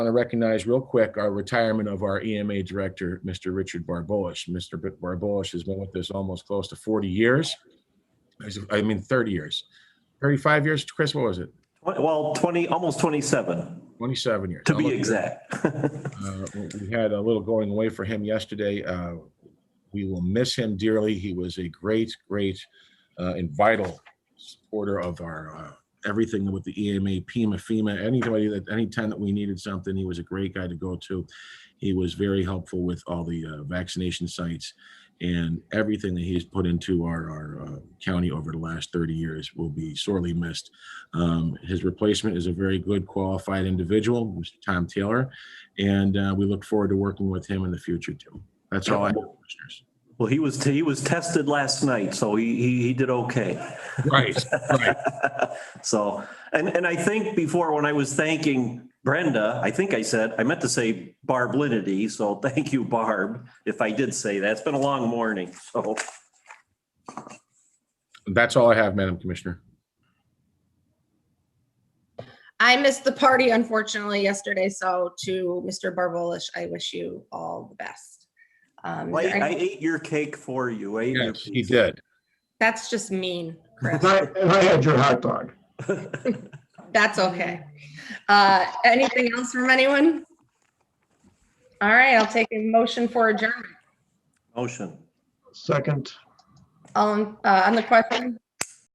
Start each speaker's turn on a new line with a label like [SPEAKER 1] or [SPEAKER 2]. [SPEAKER 1] want to recognize real quick our retirement of our EMA director, Mr. Richard Barbois. Mr. B- Barbois has been with us almost close to 40 years. He's- I mean, 30 years, 35 years. Chris, what was it?
[SPEAKER 2] Well, 20, almost 27,
[SPEAKER 1] 27 years.
[SPEAKER 2] to be
[SPEAKER 1] Almost-
[SPEAKER 2] exact.
[SPEAKER 1] Uh, We had a little going away for him yesterday. Uh, We will miss him dearly. He was a great, great uh, and vital supporter of our, uh, everything with the EMA, PIMA, FEMA, anybody that, anytime that we needed something, he was a great guy to go to. He was very helpful with all the uh, vaccination sites and everything that he's put into our, our uh, county over the last 30 years will be sorely missed. Um, His replacement is a very good qualified individual, Mr. Tom Taylor. And uh, we look forward to working with him in the future too. That's all I have, commissioners.
[SPEAKER 2] Well, he was, he was tested last night, so he, he, he did okay.
[SPEAKER 1] Right, right.
[SPEAKER 2] So, and, and I think before, when I was thanking Brenda, I think I said, I meant to say Barb Linity, so thank you, Barb, if I did say that. It's been a long morning, so.
[SPEAKER 1] That's all I have, Madam Commissioner.
[SPEAKER 3] I missed the party unfortunately yesterday, so to Mr. Barbolish, I wish you all the best. Um,
[SPEAKER 2] I,
[SPEAKER 3] is there
[SPEAKER 2] I
[SPEAKER 3] any-
[SPEAKER 2] ate your cake for you. I ate your
[SPEAKER 1] Yes, he
[SPEAKER 2] pizza.
[SPEAKER 1] did.
[SPEAKER 3] That's just mean, Chris.
[SPEAKER 4] And I, and I had your hot dog.
[SPEAKER 3] That's okay. Uh, anything else from anyone? All right, I'll take a motion for adjournment.
[SPEAKER 2] Motion.
[SPEAKER 4] Second,
[SPEAKER 3] All, in- uh, on the question,